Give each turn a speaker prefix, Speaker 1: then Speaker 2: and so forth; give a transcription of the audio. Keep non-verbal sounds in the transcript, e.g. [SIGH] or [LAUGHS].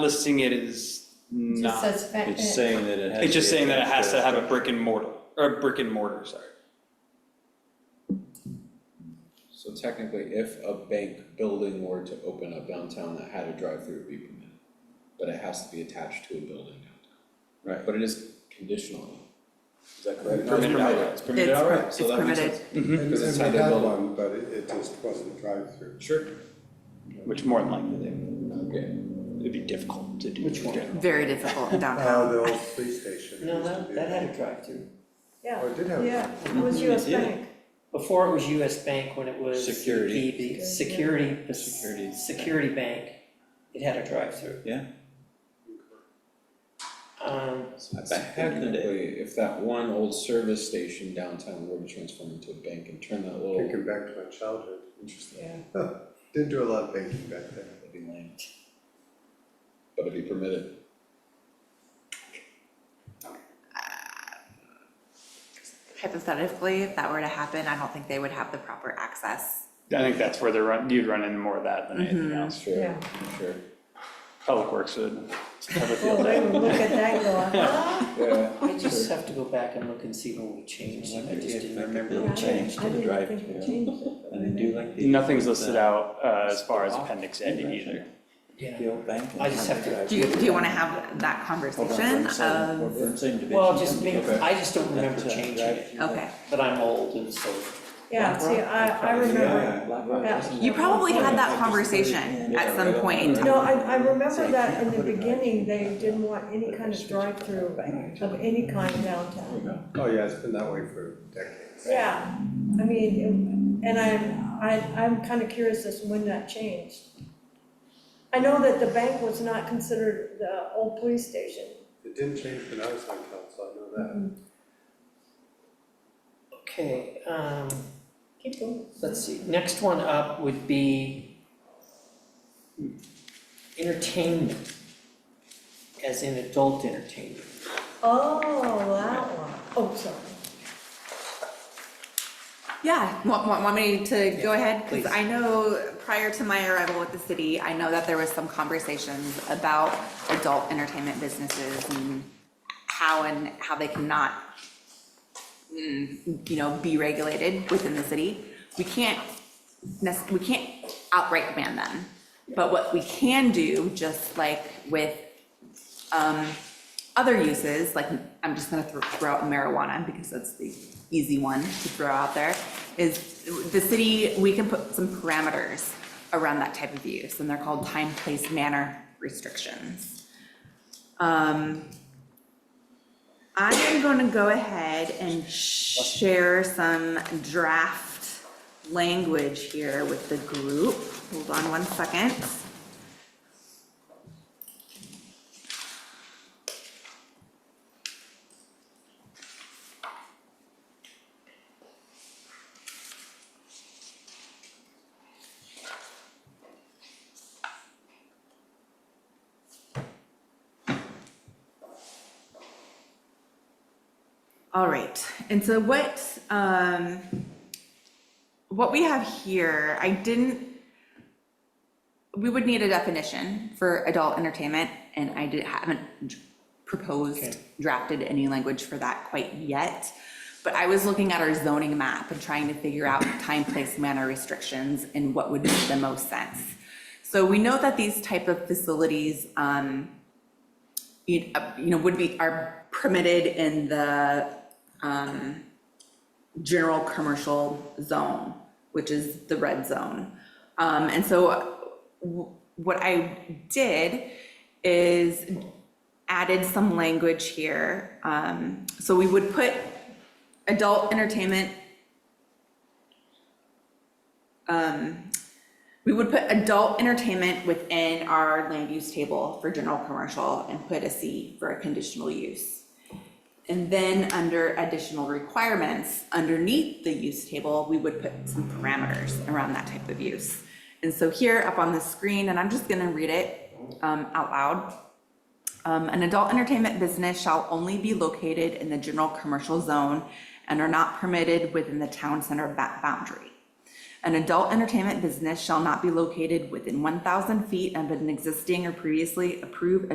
Speaker 1: listing it is
Speaker 2: Just
Speaker 1: not,
Speaker 2: says fa-
Speaker 3: It's saying that it has.
Speaker 1: it's just
Speaker 3: to be
Speaker 1: saying that it has to
Speaker 3: attached
Speaker 1: have a brick and mortar, or a brick and mortar, sorry.
Speaker 4: So technically, if a bank building were to open up downtown that had a drive-through, it'd be permitted. But it has to be attached to a building downtown. Right. But it is conditional. Is that correct? No,
Speaker 1: Permitted outright.
Speaker 4: It's permitted
Speaker 5: It's-
Speaker 4: outright, so
Speaker 5: it's
Speaker 4: that makes
Speaker 5: permitted.
Speaker 4: sense.
Speaker 6: And
Speaker 4: Because it's
Speaker 6: and
Speaker 4: how
Speaker 6: we
Speaker 4: they
Speaker 6: had
Speaker 4: build it.
Speaker 6: one, but it it just wasn't drive-through.
Speaker 4: Sure.
Speaker 1: Which more than likely, they-
Speaker 4: Okay.
Speaker 1: it'd be difficult to do.
Speaker 3: Which one?
Speaker 5: Very difficult in
Speaker 6: Uh,
Speaker 5: downtown.
Speaker 6: the old police station.
Speaker 7: No,
Speaker 6: used to be
Speaker 7: that, that
Speaker 6: there.
Speaker 7: had a drive-through.
Speaker 6: Oh,
Speaker 2: Yeah,
Speaker 6: it did have.
Speaker 2: yeah, it was US
Speaker 3: Mm-hmm. Yeah.
Speaker 2: Bank.
Speaker 7: Before it was US Bank, when it was.
Speaker 3: Security.
Speaker 7: the- the Security, the
Speaker 3: Security.
Speaker 7: Security Bank, it had a drive-through.
Speaker 3: Yeah.
Speaker 7: Um,
Speaker 4: So that's
Speaker 3: Back in the day.
Speaker 4: technically, if that one old service station downtown were to transform into a bank and turn that little.
Speaker 6: Thinking back to my childhood,
Speaker 4: Interesting.
Speaker 2: Yeah.
Speaker 6: didn't do a lot of banking back then.
Speaker 4: That'd be lame. But it'd be permitted.
Speaker 5: Hypothetically, if that were to happen, I don't think they would have the proper access.
Speaker 1: I think that's where they run, you'd run into more of that than
Speaker 2: Mm-hmm.
Speaker 1: anything else.
Speaker 4: Sure,
Speaker 2: Yeah.
Speaker 4: sure.
Speaker 1: Public Works would have a
Speaker 2: Well,
Speaker 1: field day.
Speaker 2: they would look at that
Speaker 3: [LAUGHS]
Speaker 2: going, huh?
Speaker 4: Yeah.
Speaker 7: I just have to go back and look and see when we changed,
Speaker 3: I
Speaker 7: I
Speaker 3: wonder
Speaker 7: just
Speaker 3: if
Speaker 7: didn't
Speaker 3: they
Speaker 7: remember.
Speaker 3: built- Change
Speaker 2: I
Speaker 3: to the
Speaker 2: didn't- I didn't think
Speaker 3: drive-through.
Speaker 2: we changed it. but
Speaker 3: And I do like the.
Speaker 1: Nothing's listed out uh, as far as
Speaker 3: Off.
Speaker 1: appendix E. A either.
Speaker 7: Yeah,
Speaker 3: The old bank. and
Speaker 7: I just have to-
Speaker 5: Do you, do you wanna have Um, that
Speaker 3: Hold on for
Speaker 5: conversation
Speaker 3: one second.
Speaker 5: of,
Speaker 3: We're in the same division.
Speaker 7: well, just maybe,
Speaker 4: Okay.
Speaker 7: I just don't remember
Speaker 3: That's a
Speaker 7: changing it,
Speaker 3: drive-through.
Speaker 5: okay.
Speaker 7: but I'm old and so.
Speaker 2: Yeah, see, I, I remember,
Speaker 3: Yeah, Black Rock
Speaker 2: Yeah.
Speaker 3: doesn't
Speaker 5: You
Speaker 3: have-
Speaker 5: probably had
Speaker 3: Yeah,
Speaker 5: that
Speaker 3: just
Speaker 5: conversation
Speaker 3: really-
Speaker 5: at some point in time.
Speaker 2: no, I, I remember that in the beginning, they didn't want any kind of drive-through of any kind downtown.
Speaker 6: Oh, yeah, it's been that way for decades.
Speaker 2: Yeah, I mean, it- and I'm, I, I'm kind of curious as to when that changed. I know that the bank was not considered the old police station.
Speaker 6: It didn't change when I was on council, I know that.
Speaker 7: Okay, um,
Speaker 2: Keep going.
Speaker 7: let's see, next one up would be entertainment, as in adult entertainment.
Speaker 2: Oh, that one. Oh, sorry.
Speaker 5: Yeah, want, want, want me to go ahead?
Speaker 7: please.
Speaker 5: Because I know prior to my arrival with the city, I know that there was some conversations about adult entertainment businesses and how and how they cannot, mm, you know, be regulated within the city. We can't, nec- we can't outright ban them. But what we can do, just like with other uses, like, I'm just gonna throw- throw out marijuana, because that's the easy one to throw out there, is the city, we can put some parameters around that type of use, and they're called time, place, manner restrictions. Um, I am gonna go ahead and share some draft language here with the group. Hold on one second. All right, and so what, um, what we have here, I didn't, we would need a definition for adult entertainment, and I did, haven't proposed, drafted any language for that quite yet. But I was looking at our zoning map and trying to figure out time, place, manner restrictions and what would make the most sense. So we know that these type of facilities, um, you uh, you know, would be, are permitted in the um, general commercial zone, which is the red zone. Um, And so w- what I did is added some language here. Um, So we would put adult entertainment um, We would put adult entertainment within our land use table for general commercial and put a C for a conditional use. And then under additional requirements, underneath the use table, we would put some parameters around that type of use. And so here up on the screen, and I'm just gonna read it um, out loud. Um, an adult entertainment business shall only be located in the general commercial zone and are not permitted within the town center ba- boundary. An adult entertainment business shall not be located within one thousand feet of an existing or previously approved